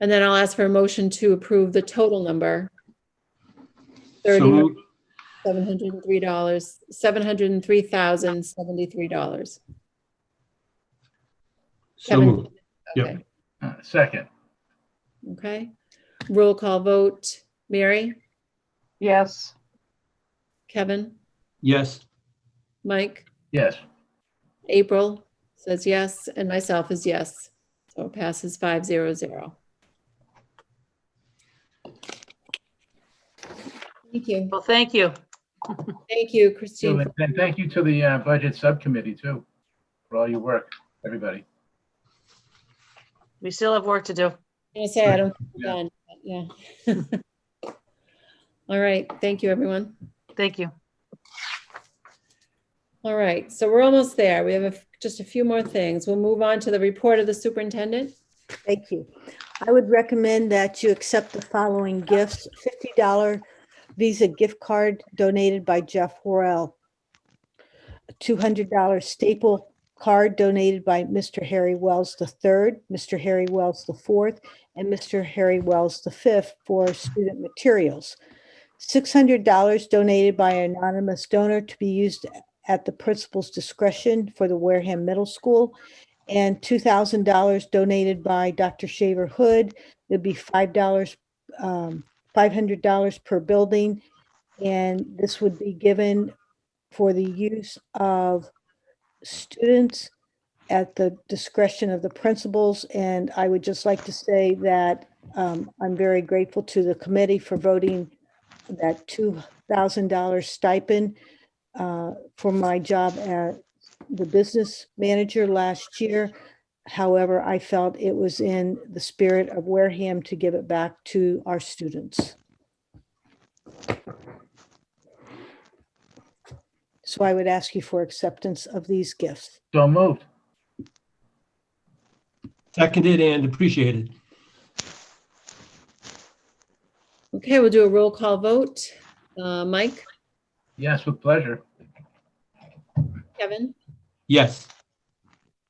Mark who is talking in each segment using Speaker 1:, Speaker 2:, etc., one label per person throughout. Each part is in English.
Speaker 1: And then I'll ask for a motion to approve the total number.
Speaker 2: So moved.
Speaker 1: $30,703, $703,073.
Speaker 2: So
Speaker 1: Kevin?
Speaker 2: moved. Yep.
Speaker 1: Okay.
Speaker 3: Uh, Second,
Speaker 1: Okay. Roll call vote. Mary,
Speaker 4: yes,
Speaker 1: Kevin,
Speaker 2: Yes.
Speaker 1: Mike,
Speaker 3: yes,
Speaker 1: April says yes, and myself is yes. So it passes five zero zero. Thank you.
Speaker 5: Well, thank you.
Speaker 1: Thank you,
Speaker 3: So,
Speaker 1: Christine.
Speaker 3: and and thank you to the uh, Budget Subcommittee too, for all your work, everybody.
Speaker 5: We still have work to do.
Speaker 1: I'm gonna say I don't, think we're done, but yeah. All right, thank you, everyone.
Speaker 5: Thank you.
Speaker 1: All right, so we're almost there. We have a f- just a few more things. We'll move on to the report of the superintendent.
Speaker 6: Thank you. I would recommend that you accept the following gifts. $50 Visa gift card donated by Jeff Worrell. A $200 staple card donated by Mr. Harry Wells III, Mr. Harry Wells IV, and Mr. Harry Wells V for student materials. $600 donated by an anonymous donor to be used at the principal's discretion for the Wareham Middle School and two thousand dollars donated by Dr. Shaver Hood. It'd be five dollars, um, five hundred dollars per building. And this would be given for the use of students at the discretion of the principals. And I would just like to say that, um, I'm very grateful to the committee for voting that two thousand dollar stipend, uh, for my job at the business manager last year. However, I felt it was in the spirit of Wareham to give it back to our students. So I would ask you for acceptance of these gifts.
Speaker 3: So moved.
Speaker 2: Seconded and appreciated.
Speaker 1: Okay, we'll do a roll call vote. Uh, Mike,
Speaker 3: Yes, with pleasure.
Speaker 1: Kevin,
Speaker 2: Yes.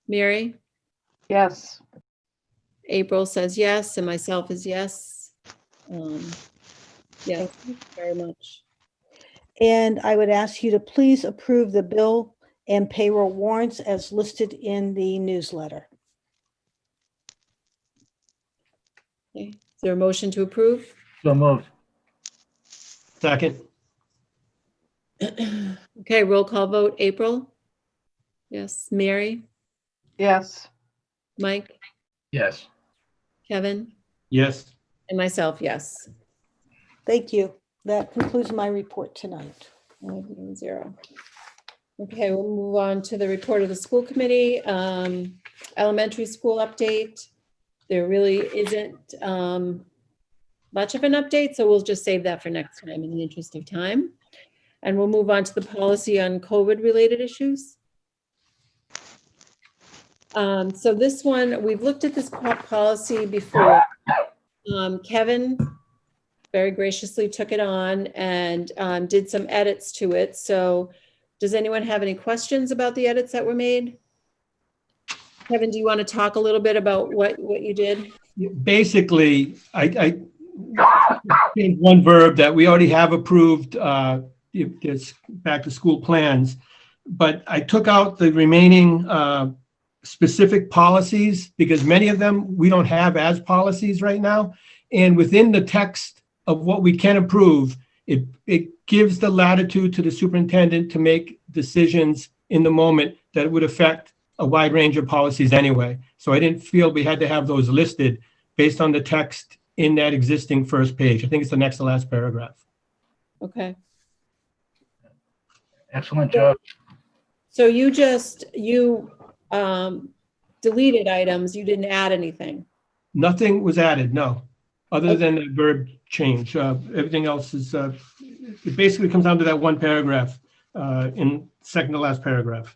Speaker 1: Mary,
Speaker 4: yes.
Speaker 1: April says yes, and myself is yes. Um, yeah, very much.
Speaker 6: And I would ask you to please approve the bill and payroll warrants as listed in the newsletter.
Speaker 1: Okay, Is there a motion to approve?
Speaker 3: So moved.
Speaker 2: Second.
Speaker 1: Okay, roll call vote. April? Yes, Mary,
Speaker 4: Yes,
Speaker 1: Mike,
Speaker 3: Yes,
Speaker 1: Kevin,
Speaker 2: Yes.
Speaker 1: and myself, yes.
Speaker 6: Thank you. That concludes my report tonight.
Speaker 1: Five zero zero. Okay, we'll move on to the report of the school committee, um, elementary school update. There really isn't, um, much of an update, so we'll just save that for next time in the interest of time. And we'll move on to the policy on COVID-related issues. Um, so this one, we've looked at this po- policy before. Um, Kevin very graciously took it on and um, did some edits to it. So does anyone have any questions about the edits that were made? Kevin, do you want to talk a little bit about what, what you did?
Speaker 2: Basically, I, I changed one verb that we already have approved, uh, if it's back to school plans. But I took out the remaining, uh, specific policies because many of them we don't have as policies right now. And within the text of what we can approve, it, it gives the latitude to the superintendent to make decisions in the moment that would affect a wide range of policies anyway. So I didn't feel we had to have those listed based on the text in that existing first page. I think it's the next to last paragraph.
Speaker 1: Okay.
Speaker 3: excellent job.
Speaker 1: So you just, you um, deleted items, you didn't add anything.
Speaker 2: Nothing was added, no, other than the verb change. Uh, Everything else is, uh, it basically comes down to that one paragraph uh, in second to last paragraph.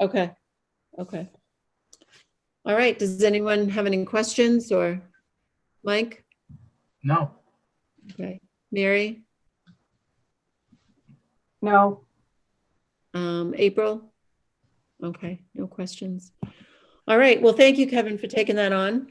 Speaker 1: Okay. Okay. All right. Does anyone have any questions or Mike?
Speaker 3: No,
Speaker 1: Okay. Mary?
Speaker 4: no,
Speaker 1: Um, April? Okay, no questions. All right, well, thank you, Kevin, for taking that on.